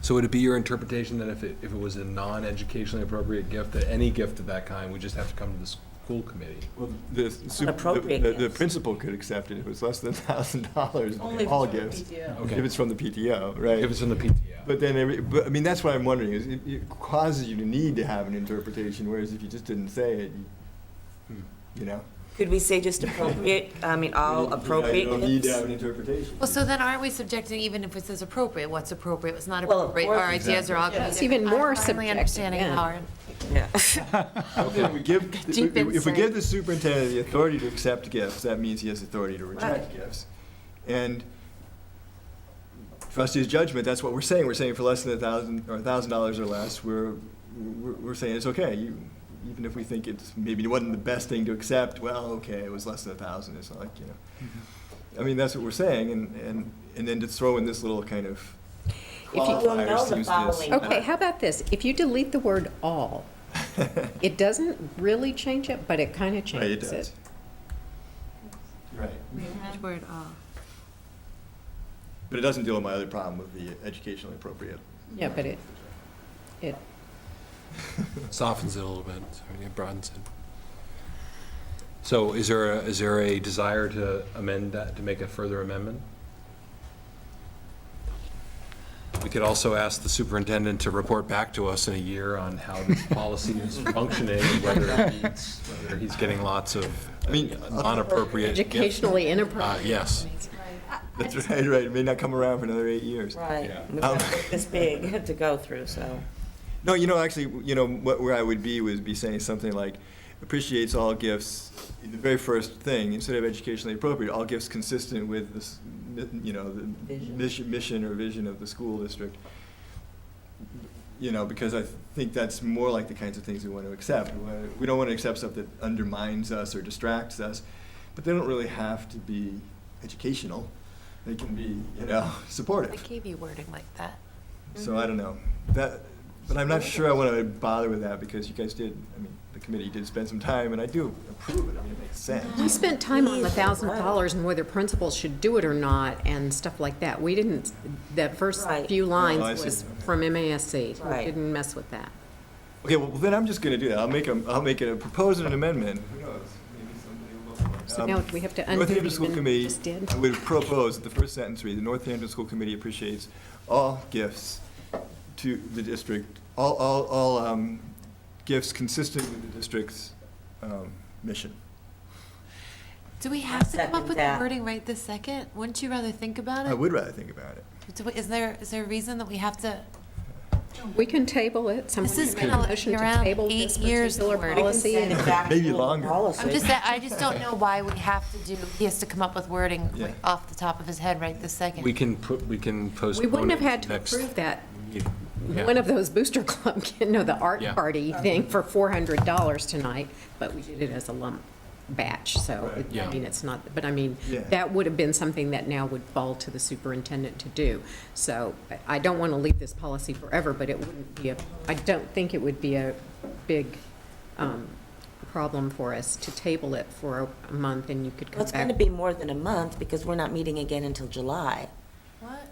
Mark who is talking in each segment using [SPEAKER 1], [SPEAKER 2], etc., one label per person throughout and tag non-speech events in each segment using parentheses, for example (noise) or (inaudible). [SPEAKER 1] So would it be your interpretation that if it, if it was a non-educationally appropriate gift, that any gift of that kind, we just have to come to the school committee?
[SPEAKER 2] Well, the, sup-
[SPEAKER 3] appropriate
[SPEAKER 2] the, the
[SPEAKER 3] gifts.
[SPEAKER 2] principal could accept it if it was less than (laughs) thousand dollars,
[SPEAKER 4] Only
[SPEAKER 2] all
[SPEAKER 4] for the
[SPEAKER 2] gifts.
[SPEAKER 4] PTO.
[SPEAKER 1] Okay.
[SPEAKER 2] If it's from the PTO, right?
[SPEAKER 1] If it's in the PTO.
[SPEAKER 2] But then, every, but I mean, that's what I'm wondering is it, it causes you to need to have an interpretation, whereas if you just didn't say it, you,
[SPEAKER 1] Hmm.
[SPEAKER 2] you know.
[SPEAKER 3] Could we say just appropriate, I mean, all appropriate
[SPEAKER 2] You don't need to have
[SPEAKER 3] gifts?
[SPEAKER 2] an interpretation.
[SPEAKER 5] Well, so then aren't we subjecting, even if it says appropriate, what's appropriate, what's not
[SPEAKER 3] Well, of
[SPEAKER 5] appropriate?
[SPEAKER 3] course.
[SPEAKER 5] Our ideas are all going to be
[SPEAKER 4] It's
[SPEAKER 5] different.
[SPEAKER 6] even more
[SPEAKER 5] I'm finally
[SPEAKER 6] subjective,
[SPEAKER 5] understanding
[SPEAKER 6] yeah.
[SPEAKER 5] how our-
[SPEAKER 3] Yeah.
[SPEAKER 2] If we give,
[SPEAKER 5] Deep
[SPEAKER 2] if we
[SPEAKER 5] insight.
[SPEAKER 2] give the superintendent the authority to accept gifts, that means he has authority to reject gifts. And trustee's judgment, that's what we're saying. We're saying for less than a thousand, or a thousand dollars or less, we're, we're, we're saying it's okay. You, even if we think it's, maybe it wasn't the best thing to accept, well, okay, it was less than a thousand, it's not like, you know. I mean, that's what we're saying, and, and, and then to throw in this little kind of
[SPEAKER 3] you will know
[SPEAKER 2] qualifier
[SPEAKER 3] the
[SPEAKER 2] seems
[SPEAKER 3] following
[SPEAKER 2] to.
[SPEAKER 6] Okay, how about this? If you delete the word all,
[SPEAKER 2] (laughs)
[SPEAKER 6] it doesn't really change it, but it kind of
[SPEAKER 2] Right, it
[SPEAKER 6] changes it.
[SPEAKER 2] does. Right.
[SPEAKER 5] Word all.
[SPEAKER 2] But it doesn't deal with my other problem with the educationally appropriate.
[SPEAKER 6] Yeah, but it, it,
[SPEAKER 1] Softens it a little bit, so it broadens it. So is there, a- is there a desire to amend that, to make a further amendment? We could also ask the superintendent to report back to us in a year on how this policy
[SPEAKER 2] (laughs)
[SPEAKER 1] is functioning, and whether it meets- whether he's getting lots of
[SPEAKER 2] I mean, uh,
[SPEAKER 1] non-appropriate gifts.
[SPEAKER 6] educationally
[SPEAKER 1] Uh,
[SPEAKER 6] inappropriate.
[SPEAKER 1] Yes.
[SPEAKER 2] that's right, right, it may not come around for another eight years.
[SPEAKER 3] (laughs) Right. We've
[SPEAKER 2] Um,
[SPEAKER 3] got This big (laughs) to go through, so.
[SPEAKER 2] No, you know, actually, you know, what, where I would be would be saying something like, appreciates all gifts, the very first thing, instead of educationally appropriate, all gifts consistent with this, you know, the
[SPEAKER 3] Vision.
[SPEAKER 2] mission, mission or vision of the school district. You know, because I think that's more like the kinds of things we want to accept. We wanna- We don't want to accept stuff that undermines us or distracts us, but they don't really have to be educational. They can be, you know, (laughs)
[SPEAKER 5] I
[SPEAKER 2] supportive.
[SPEAKER 5] gave you wording like that.
[SPEAKER 2] So I don't know. That, but I'm not sure I want to bother with that because you guys did, I mean, the committee did spend some time and I do approve it. I mean, it makes
[SPEAKER 6] We
[SPEAKER 2] sense.
[SPEAKER 6] spent time on the thousand dollars and whether principals should do it or not and stuff like that. We didn't, that first
[SPEAKER 3] Right.
[SPEAKER 6] few
[SPEAKER 2] No, I
[SPEAKER 6] lines
[SPEAKER 2] see.
[SPEAKER 6] was from MASC.
[SPEAKER 3] Right.
[SPEAKER 6] We didn't mess with that.
[SPEAKER 2] Okay, well, then I'm just going to do that. I'll make a, I'll make a, propose an amendment. Who knows? Maybe somebody will vote for it.
[SPEAKER 6] So
[SPEAKER 2] Um,
[SPEAKER 6] now we have to undo
[SPEAKER 2] Northampton
[SPEAKER 6] even
[SPEAKER 2] School
[SPEAKER 6] what we
[SPEAKER 2] Committee
[SPEAKER 6] just did?
[SPEAKER 2] I would propose that the first sentence read, the Northampton School Committee appreciates all gifts to the district, all, all, all um, gifts consistent with the district's um, mission.
[SPEAKER 5] Do we have to come
[SPEAKER 3] Second
[SPEAKER 5] up with the
[SPEAKER 3] that.
[SPEAKER 5] wording right this second? Wouldn't you rather think about
[SPEAKER 2] I
[SPEAKER 5] it?
[SPEAKER 2] would rather think about it.
[SPEAKER 5] Do we- Is there, is there a reason that we have to?
[SPEAKER 6] We can table it. Someone
[SPEAKER 5] This has
[SPEAKER 6] can make a
[SPEAKER 5] been a-
[SPEAKER 6] motion to
[SPEAKER 5] around
[SPEAKER 6] table this
[SPEAKER 5] eight years
[SPEAKER 6] particular
[SPEAKER 5] worth.
[SPEAKER 6] policy.
[SPEAKER 3] Send it
[SPEAKER 6] and-
[SPEAKER 2] (laughs)
[SPEAKER 3] back
[SPEAKER 2] Maybe
[SPEAKER 3] to the
[SPEAKER 2] longer.
[SPEAKER 3] policy.
[SPEAKER 5] I'm just, I just don't know why we have to do, he has to come up with wording
[SPEAKER 2] Yeah.
[SPEAKER 5] like, off the top of his head right this second.
[SPEAKER 1] We can put, we can
[SPEAKER 6] We
[SPEAKER 1] postpone.
[SPEAKER 6] wouldn't have
[SPEAKER 1] it
[SPEAKER 6] had to
[SPEAKER 1] next-
[SPEAKER 6] approve that
[SPEAKER 1] Yeah.
[SPEAKER 6] one of those booster (laughs) club, you know, the art
[SPEAKER 1] Yeah.
[SPEAKER 6] party
[SPEAKER 3] Uh-huh.
[SPEAKER 6] thing for four hundred dollars tonight, but we did it as a lump batch, so, it-
[SPEAKER 1] Yeah.
[SPEAKER 6] I mean, it's not, but I mean,
[SPEAKER 2] Yeah.
[SPEAKER 6] that would have been something that now would fall to the superintendent to do. So I- I don't want to leave this policy forever, but it wouldn't be a, I don't think it would be a big um, problem for us to table it for a month and you could
[SPEAKER 3] Well,
[SPEAKER 6] come
[SPEAKER 3] it's going to
[SPEAKER 6] back.
[SPEAKER 3] be more than a month because we're not meeting again until July.
[SPEAKER 5] What?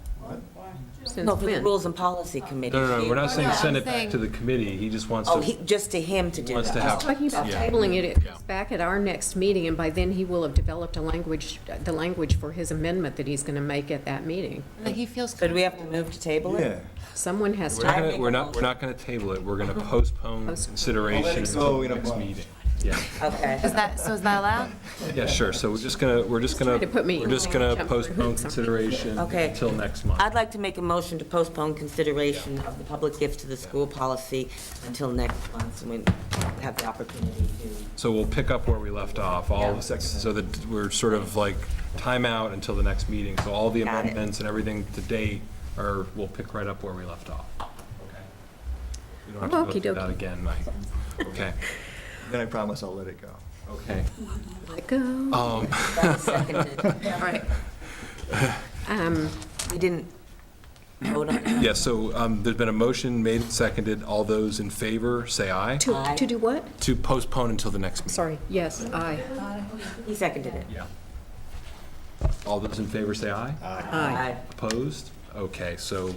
[SPEAKER 6] Since
[SPEAKER 3] No, for the
[SPEAKER 6] when?
[SPEAKER 3] Rules and Policy Committee.
[SPEAKER 1] No, no, no, we're not saying
[SPEAKER 5] No,
[SPEAKER 1] send
[SPEAKER 5] I'm
[SPEAKER 1] it back to
[SPEAKER 5] saying-
[SPEAKER 1] the committee, he just wants to.
[SPEAKER 3] Oh, he, just to him to do
[SPEAKER 1] Wants to
[SPEAKER 3] that.
[SPEAKER 1] have-
[SPEAKER 6] Talking about
[SPEAKER 1] Yeah.
[SPEAKER 6] tabling it,
[SPEAKER 1] Yeah.
[SPEAKER 6] it's back at our next meeting, and by then he will have developed a language, the language for his amendment that he's going to make at that meeting.
[SPEAKER 5] Like he feels.
[SPEAKER 3] So do we have to move to table it?
[SPEAKER 2] Yeah.
[SPEAKER 6] Someone has
[SPEAKER 1] We're not
[SPEAKER 6] to,
[SPEAKER 1] gonna, we're not, we're not gonna table it, we're
[SPEAKER 6] (laughs)
[SPEAKER 1] gonna postpone
[SPEAKER 2] Let
[SPEAKER 1] consideration
[SPEAKER 2] it go
[SPEAKER 1] until
[SPEAKER 2] in a
[SPEAKER 1] next
[SPEAKER 2] month.
[SPEAKER 1] meeting. Yeah,
[SPEAKER 3] Okay.
[SPEAKER 5] Is that, so is that allowed?
[SPEAKER 1] yeah, sure, so we're just gonna, we're just gonna,
[SPEAKER 6] trying to put me
[SPEAKER 1] we're
[SPEAKER 6] in
[SPEAKER 1] just
[SPEAKER 6] line,
[SPEAKER 1] gonna
[SPEAKER 6] jump through
[SPEAKER 1] postpone
[SPEAKER 6] hoops.
[SPEAKER 1] consideration
[SPEAKER 3] Okay.
[SPEAKER 1] until next month.
[SPEAKER 3] I'd like to make a motion to postpone consideration of the public gift to the school policy until next month when we have the opportunity to.
[SPEAKER 1] So we'll pick up where we left off, all,
[SPEAKER 3] Yeah.
[SPEAKER 1] so that we're sort of like timeout until the next meeting, so all the
[SPEAKER 3] Got it.
[SPEAKER 1] amendments and everything to date are, we'll pick right up where we left off. We don't have to go through
[SPEAKER 6] Okey-dokey.
[SPEAKER 1] that again, Mike. Okay,
[SPEAKER 2] Then I promise I'll let it go.
[SPEAKER 1] okay.
[SPEAKER 6] let go.
[SPEAKER 1] Um,
[SPEAKER 3] Seconded.
[SPEAKER 1] (laughs)
[SPEAKER 6] All right. Um,
[SPEAKER 3] We didn't vote on it.
[SPEAKER 1] Yeah, so um, there's been a motion made and seconded. All those in favor, say aye.
[SPEAKER 6] To, to do what?
[SPEAKER 1] To postpone until the next meeting.
[SPEAKER 6] Sorry, yes, aye.
[SPEAKER 3] He seconded it.
[SPEAKER 1] Yeah. All those in favor, say aye.
[SPEAKER 6] Aye.
[SPEAKER 3] Aye.
[SPEAKER 1] Opposed? Okay, so